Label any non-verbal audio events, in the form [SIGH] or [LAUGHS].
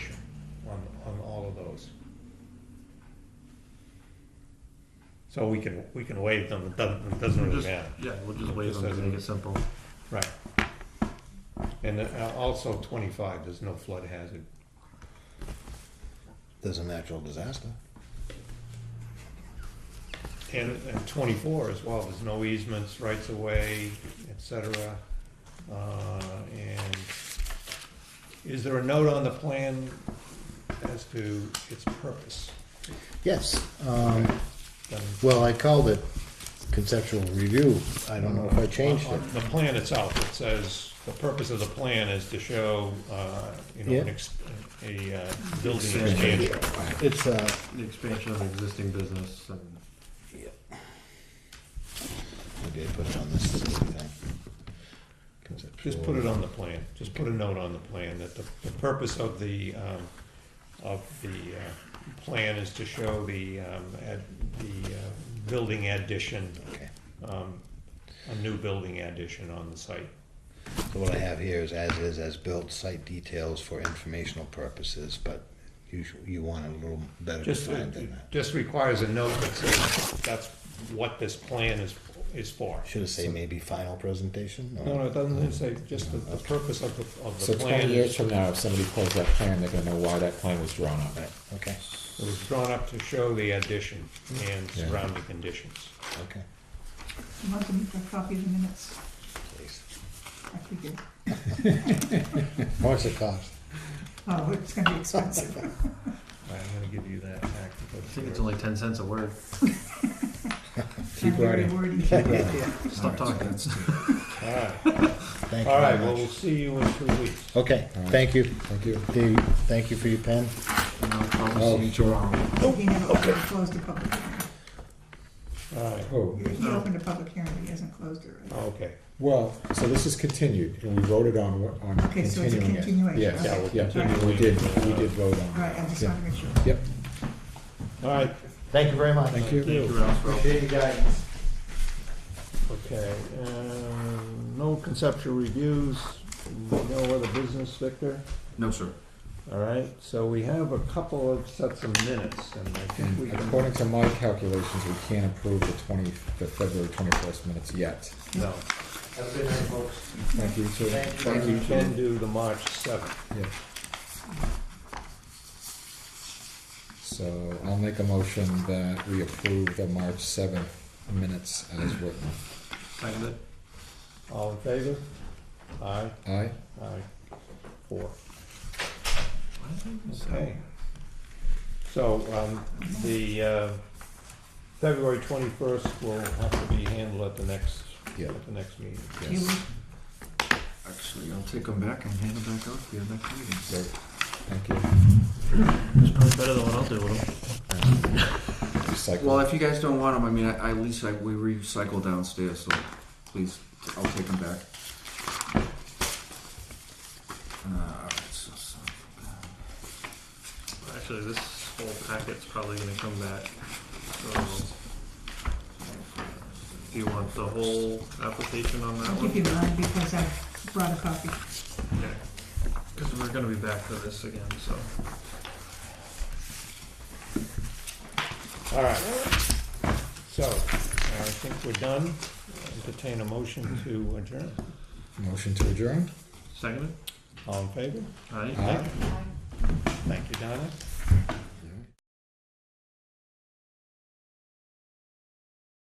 So we can, we can waive them, it doesn't, it doesn't really Just- matter, Yeah, we'll just waive Just them to doesn't- make it simple. right. And uh, also twenty-five, there's no flood hazard. There's a natural disaster. And, and twenty-four as well, there's no easements, rights of way, et cetera. Uh, and is there a note on the plan as to its purpose? Yes, um, Then- well, I called it conceptual review. I don't know if I changed On it. The plan itself, it says, the purpose of the plan is to show, uh, you know, an Yeah. ex- a uh, building Expansion. expansion. It's, uh, The expansion of existing business and I did put it on this thing. Just put it on the plan, just put a note on the plan that the, the purpose of the, um, of the, uh, plan is to show the, um, ad, the, uh, building addition, Okay, um, a new building addition on the site. so what I have here is as is, as built, site details for informational purposes, but you, sh- you want it a little better Just, uh, defined it than that. just requires a note that says, that's what this plan is, is for. Should it say maybe final presentation? or- No, no, it doesn't say, just the, the purpose of the, of So the plan. twenty years from now, if somebody pulls that plan, they're gonna know why that plan was drawn up. Right, okay, It was drawn up to show the addition and Yeah. surrounding conditions. okay, You want them a copy of the minutes? please. I figured, What's it cost? [LAUGHS] oh, it's gonna [LAUGHS] be expensive. All right, I'm gonna give you that back. I think it's only ten cents a word. Keep Not very writing. wordy. [LAUGHS] Stop talking. All right, Thank you all right, very well, much. we'll see you in two weeks. Okay, All right. thank you. Thank you. Dave, thank you for your pen. And I'll probably see you tomorrow. He never closed the public hearing. All right, Oh, He opened a public hearing, but he hasn't closed it, Oh. right? Oh, okay, well, so this is continued, and we voted on, on Okay, so it's a continuing it. continuation. Yes, Yeah, we'll yeah, continue. we did, we did vote All on right, I it. just Yeah. wanted to make sure. Yep, all right, Thank you very much. thank you. Thank you, Ralph. Appreciate your guidance. okay. um, No conceptual reviews, no other business, Victor? No, sir. All right, so we have a couple of sets of minutes, and I think we And can. according to my calculations, we can't approve the twenty, the February twenty-first minutes yet. No, Have a good night, folks. Thank you too. Thank we can do the March seventh. Yeah. So I'll make a motion that we approve the March seventh minutes as written. Seconded. All in favor? Aye, Aye? aye, four. Okay. Okay. So, um, the, uh, February twenty-first will have to be handled at the next, Yeah. at the next meeting. You Yes. Actually, I'll take them back and hand them back out to you next meeting. Great. Thank you. It's probably better than what I'll do with them. Recycle. Well, if you guys don't want them, I mean, I, I at least I, we recycle downstairs, so please, I'll take them back. Uh, so, so, Actually, this whole packet's probably gonna come back. So, Do you want the whole application on that I'll one? give you mine because I brought a copy. Because we're gonna be back to this again, so. All right. So, I think we're done. Entertain a motion to adjourn. Motion to adjourn? Seconded? All in favor? Aye. Aye. Thank you, Donna.